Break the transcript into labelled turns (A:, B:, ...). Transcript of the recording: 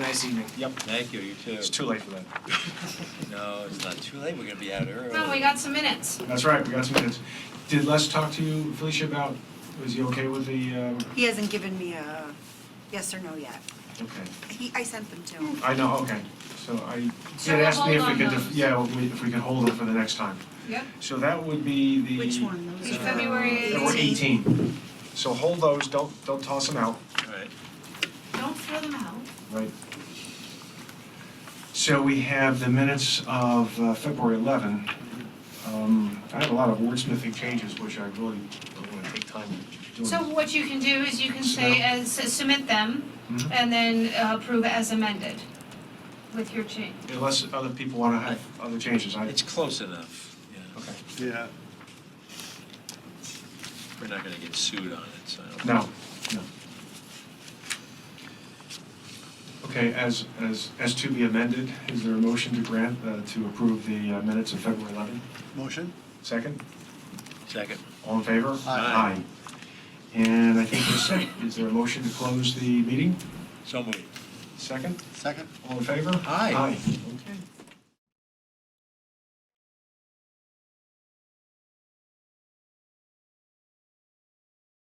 A: Nice evening.
B: Yep. Thank you, you too.
A: It's too late for that.
B: No, it's not too late, we're gonna be out early.
C: No, we got some minutes.
A: That's right, we got some minutes. Did Les talk to you, Felicia, about, was he okay with the, um,
D: He hasn't given me a yes or no yet.
A: okay.
D: He, I sent them to him.
A: I know, okay. So I, he
C: So
A: had
C: we'll
A: asked me if we
C: hold
A: could,
C: on
A: def-
C: those.
A: yeah, we- if we could hold them for the next time.
C: Yep.
A: So that would be the. uh,
D: Which one? Those
C: The
D: are-
C: February
A: February 18. So hold those, don't, don't toss them out.
B: All right.
C: Don't throw them out.
A: Right. So we have the minutes of uh, February 11. Um, I have a lot of wordsmithing changes, which I really don't want to take time doing.
C: So what you can do is you can say as, submit them
A: Mhm.
C: and then uh, approve as amended with your change.
A: Unless other people want to have other changes, I,
B: It's close enough, yeah.
A: okay.
E: Yeah,
B: We're not gonna get sued on it, so. I don't-
A: No, no. Okay, as, as, as to be amended, is there a motion to grant, uh, to approve the uh, minutes of February 11?
E: motion?
A: Second?
B: Second,
A: All in favor?
B: Aye.
A: And I think we're set. Is there a motion to close the meeting?
B: so moved.
A: Second?
E: Second?
A: All in favor?
B: Aye.
A: Aye. Okay.